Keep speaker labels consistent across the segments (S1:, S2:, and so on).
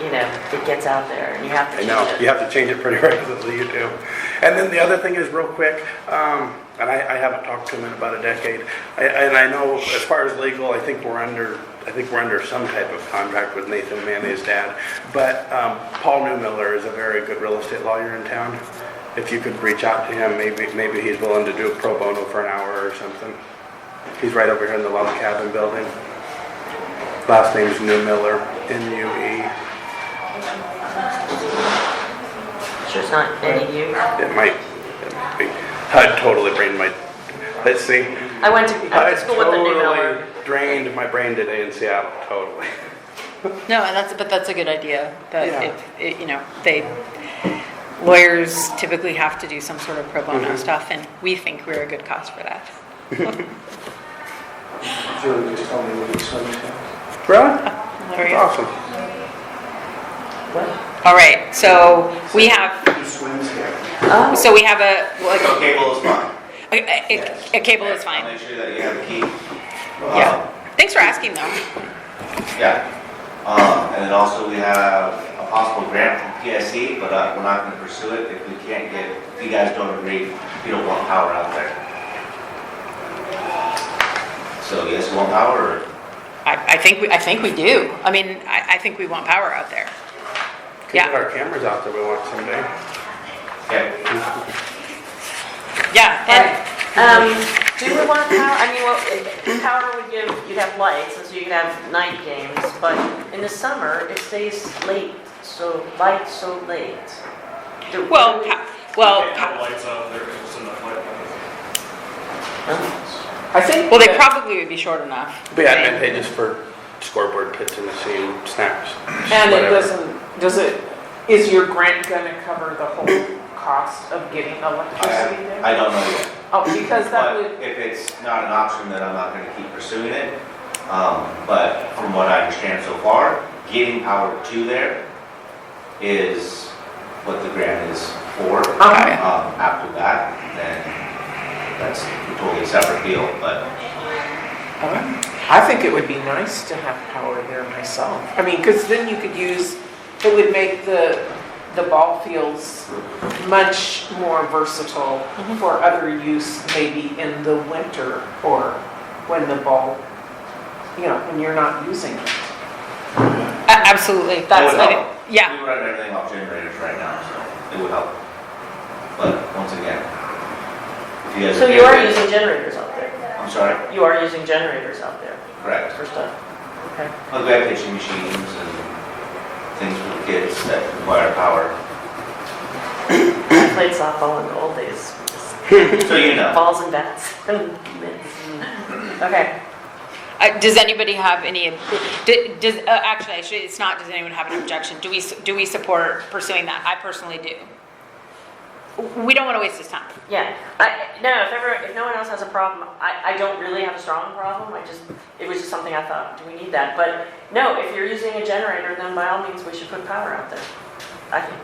S1: you know, it gets out there and you have to
S2: I
S1: change
S2: know,
S1: it.
S2: you have to change it pretty regularly, you do. And then the other thing is, real quick, um, and I, I haven't talked to him in about a decade, I- and I know as far as legal, I think we're under, I think we're under some type of contract with Nathan Manny's dad, but um, Paul Newmiller is a very good real estate lawyer in town. If you could reach out to him, maybe, maybe he's willing to do a pro bono for an hour or something. He's right over here in the log cabin building. Last name's Newmiller, N-U-E.
S1: Sure, it's not any you.
S2: It might, it might be. I totally brained my, let's see.
S1: I went to, I went
S2: I
S1: to school with the new Miller.
S2: totally drained my brain today in Seattle, totally.
S3: No, and that's, but that's a good idea,
S2: Yeah.
S3: that if, it- you know, they, lawyers typically have to do some sort of pro bono stuff, and we think we're a good cause for that.
S4: Julie just told me we'll be swimming. now.
S2: Really? That's
S3: Lawyers-
S2: awesome.
S3: All right, so we have,
S4: Who swims here?
S1: Oh,
S3: so we have a, like,
S5: So cable is fine.
S3: a- a, a cable is fine.
S5: Make sure that you have a key.
S3: Yeah. Thanks for asking, though.
S5: Um, Yeah. Um, and then also we have a possible grant from PSC, but uh, we're not gonna pursue it if we can't get, if you guys don't agree, you don't want power out there. So you guys want power or?
S3: I, I think, we I think we do. I mean, I, I think we want power out there.
S2: Could
S3: Yeah.
S2: get our cameras out there we want someday.
S5: Yeah.
S3: Yeah,
S1: but,
S3: and,
S1: um, do we want power, I mean, well, if- power would give, you'd have lights, and so you could have night games, but in the summer, it stays late, so, light so late. Do-
S3: well,
S1: do we-
S3: pa- well,
S6: They have
S3: pa-
S6: lights out there, it's in the light.
S2: I think.
S3: well, they probably would be short enough.
S2: Be advantageous for scoreboard pits in the scene, snaps,
S7: And it
S2: whatever.
S7: doesn't, does it, is your grant gonna cover the whole cost of getting electricity there?
S5: I, I don't know yet.
S7: Oh, because that would,
S5: But if it's not an option, then I'm not gonna keep pursuing it. Um, but from what I understand so far, getting power to there is what the grant is for.
S3: Okay.
S5: Um, after that, then that's a totally separate deal, but
S7: I think it would be nice to have power there myself. I mean, because then you could use, it would make the, the ball fields much more versatile
S3: Mm-hmm.
S7: for other use, maybe in the winter or when the ball, you know, when you're not using it.
S3: A- Absolutely, that's,
S5: would
S3: I
S5: help.
S3: think- yeah.
S5: we run everything off generators right now, so it would help. But once again, if you guys.
S1: So
S5: are
S1: you are
S5: okay with it-
S1: using generators out there,
S5: I'm sorry,
S1: you are using generators out there
S5: correct.
S1: for stuff, okay.
S5: Well, we have pitching machines and things for kids that require power.
S1: I played softball in the old days,
S5: So you know.
S1: balls and bats and mitts. Okay,
S3: Uh, Does anybody have any, d- does, uh, actually, I should- it's not, does anyone have an objection? Do we, s- do we support pursuing that? I personally do. W- We don't want to waste this time.
S1: yeah, I, no, if ever, if no one else has a problem, I, I don't really have a strong problem, I just, it was just something I thought, do we need that? But no, if you're using a generator, then by all means, we should put power out there, I think.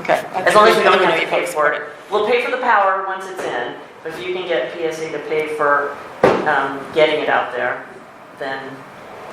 S3: Okay.
S1: As long as we don't have to pay for it. We'll pay for the power once it's in, but if you can get PSC to pay for, um, getting it out there, then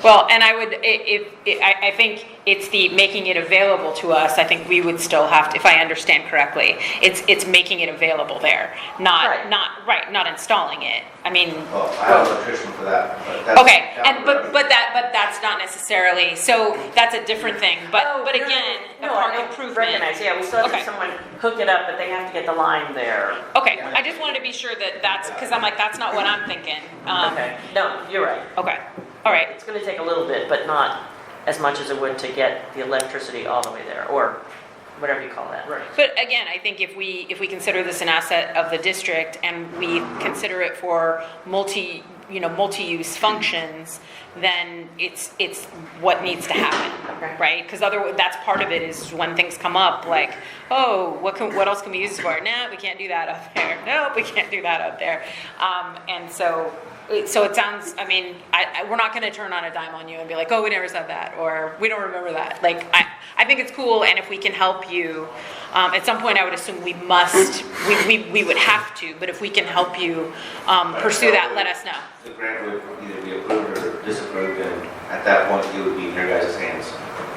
S3: Well, and I would, i- if, i- I, I think it's the making it available to us, I think we would still have, to if I understand correctly, it's, it's making it available there,
S1: Right.
S3: not, not, right, not installing it. I mean,
S5: Well, I have an electrician for that, but that's.
S3: Oh, okay,
S5: that
S3: and, but,
S5: would-
S3: but that, but that's not necessarily, so that's a different thing,
S1: Oh,
S3: but, but
S1: no, no,
S3: again, a
S1: no,
S3: park
S1: I know,
S3: improvement.
S1: Recognize, yeah, we still have to have
S3: Okay.
S1: someone hook it up, but they have to get the line there.
S3: Okay, I just wanted to be sure that that's, because I'm like, that's not what I'm thinking. Um,
S1: Okay, no, you're right.
S3: Okay, all right,
S1: It's gonna take a little bit, but not as much as it would to get the electricity all the way there, or whatever you call that. Right.
S3: but again, I think if we, if we consider this an asset of the district and we consider it for multi, you know, multi-use functions, then it's, it's what needs to
S1: Okay.
S3: happen, right? Because other, that's part of it is when things come up, like, oh, what can, what else can we use this for? No, we can't do that up there, nope, we can't do that up there. Um, and so, it- so it sounds, I mean, I, I, we're not gonna turn on a dime on you and be like, oh, we never said that, or we don't remember that. Like, I, I think it's cool, and if we can help you, um, at some point, I would assume we must, we, we, we would have to, but if we can help you, um, pursue that, let us know.
S5: The grant would either be approved or disapproved, and at that point, it would be in your guys' hands.